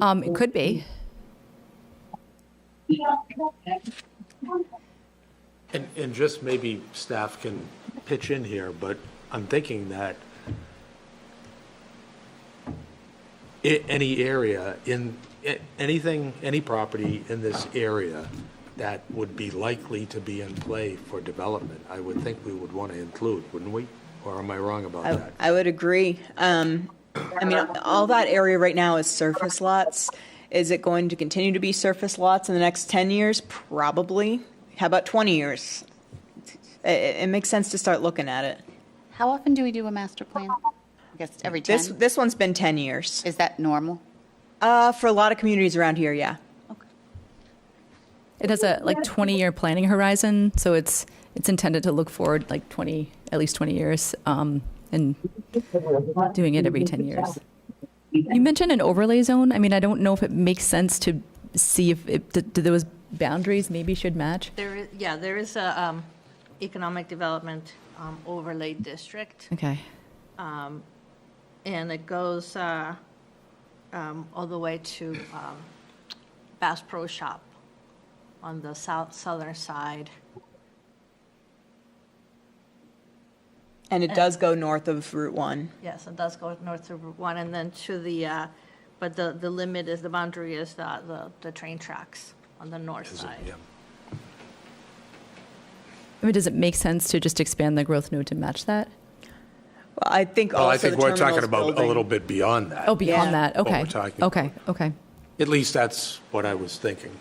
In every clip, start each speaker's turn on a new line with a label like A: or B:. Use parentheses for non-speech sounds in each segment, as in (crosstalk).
A: Um, it could be.
B: And, and just maybe staff can pitch in here, but I'm thinking that i- any area in, a- anything, any property in this area that would be likely to be in play for development, I would think we would want to include, wouldn't we? Or am I wrong about that?
C: I would agree. Um, I mean, all that area right now is surface lots. Is it going to continue to be surface lots in the next 10 years? Probably. How about 20 years? It, it it makes sense to start looking at it.
D: How often do we do a master plan? I guess every
C: This,
D: 10?
C: this one's been 10 years.
D: Is that normal?
C: Uh, for a lot of communities around here, yeah.
D: Okay.
A: It has a like 20-year planning horizon, so it's, it's intended to look forward like 20, at least 20 years, um, and doing it every 10 years. You mentioned an overlay zone. I mean, I don't know if it makes sense to see if, it- do do those boundaries maybe should match?
E: There is, yeah, there is a um, economic development um, overlay district,
A: Okay.
E: and it goes uh, um, all the way to um, Bass Pro Shop on the south, southern side.
C: And it does go north of Route 1.
E: Yes, it does go north to Route 1, and then to the, uh, but the, the limit is, the boundary is the, the- the train tracks on the north
B: Is it-
E: side.
B: yeah.
A: I mean, does it make sense to just expand the growth node to match that?
C: Well, I think
B: Well, I
C: also
B: think
C: the
B: we're talking
C: terminal's
B: about a
C: building-
B: little bit beyond that.
A: Oh, beyond
C: Yeah.
A: that,
B: What
A: okay.
B: we're talking
A: Okay, okay.
B: At least that's what I was thinking.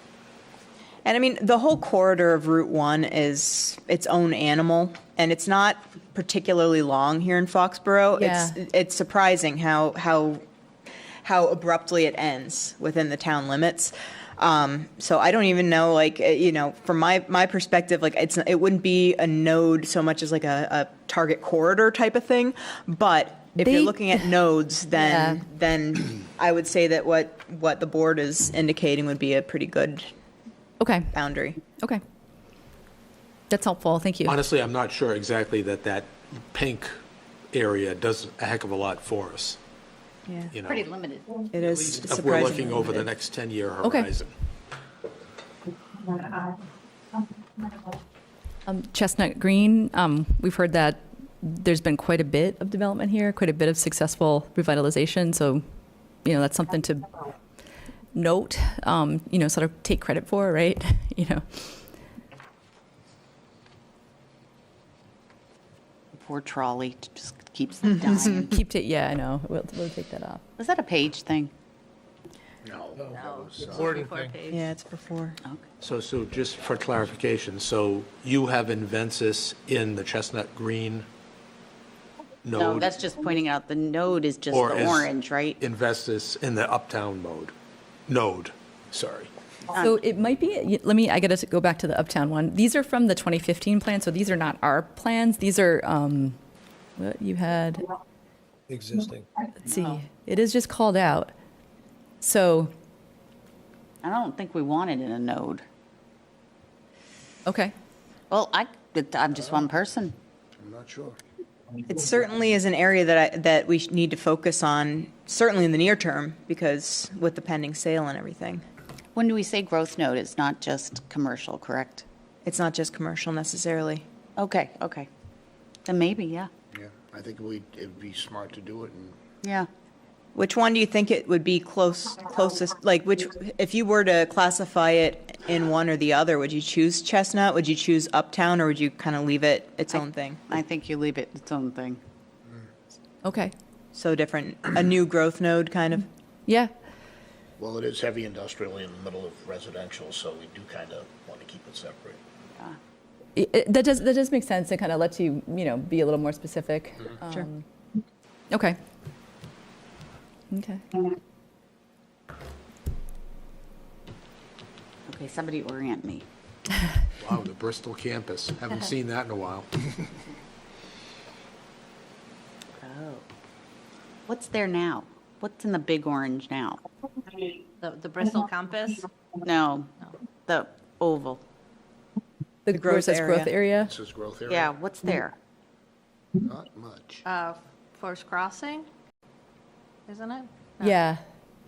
C: And I mean, the whole corridor of Route 1 is its own animal, and it's not particularly long here in Foxborough.
A: Yeah.
C: It's it's surprising how how how abruptly it ends within the town limits. Um, so I don't even know, like eh, you know, from my my perspective, like it's it wouldn't be a node so much as like a, a target corridor type of thing. But if
A: They-
C: you're looking
A: (laughs)
C: at nodes, then
A: Yeah.
C: then I would say that what what the board is indicating would be a pretty good
A: Okay,
C: boundary.
A: okay. That's helpful, thank you.
B: Honestly, I'm not sure exactly that that pink area does a heck of a lot for us,
C: Yeah,
B: you know?
D: Pretty limited.
C: it is
B: If we're
C: surprising.
B: looking over the next 10-year
A: Okay.
B: horizon.
A: Um, Chestnut Green, um, we've heard that there's been quite a bit of development here, quite a bit of successful revitalization, so, you know, that's something to note, um, you know, sort of take credit for, right? (laughs) You know,
D: Poor trolley just (laughs) keeps dying.
A: keep it, yeah, I know, we'll, we'll take that off.
D: Is that a page thing?
E: No, before page.
C: Yeah, it's before.
B: So Sue, just for clarification, so you have Inventus in the Chestnut Green node?
D: No, that's just pointing out the node is just
B: or
D: the
B: is
D: orange, right?
B: Investus in the uptown mode, node, sorry.
A: So it might be, y- let me, I gotta go back to the Uptown one. These are from the 2015 plan, so these are not our plans, these are, um, what you had,
F: existing.
A: let's see, it is just called out. So,
D: I don't think we want it in a node.
A: okay,
D: Well, I, but I'm just one person.
F: I'm not sure.
C: It certainly is an area that I, that we sh- need to focus on, certainly in the near term, because with the pending sale and everything,
D: When do we say growth node? It's not just commercial, correct?
C: it's not just commercial necessarily.
D: Okay, okay. Then maybe, yeah.
F: Yeah, I think we, it'd be smart to do it and
D: Yeah.
C: Which one do you think it would be close closest? Like which, if you were to classify it in one or the other, would you choose Chestnut? Would you choose Uptown, or would you kind of leave it its own thing?
D: I think you leave it its own thing.
A: okay,
C: So different, a new growth node kind of.
A: yeah.
G: Well, it is heavy industrial in the middle of residential, so we do kind of want to keep it separate.
A: It- it- that does that does make sense. It kind of lets you you know be a little more specific.
C: Sure.
A: Um, Okay. Okay.
D: Okay, somebody orient me.
B: Wow, the Bristol campus, haven't seen that in a
D: (laughs)
B: while.
D: Oh. What's there now? What's in the big orange now?
E: The, the Bristol campus,
D: No, the oval.
A: The,
C: growth
A: growth says growth area.
F: this is growth
D: Yeah,
F: area,
D: what's there?
F: not much.
E: uh, Forest Crossing, isn't it?
A: Yeah.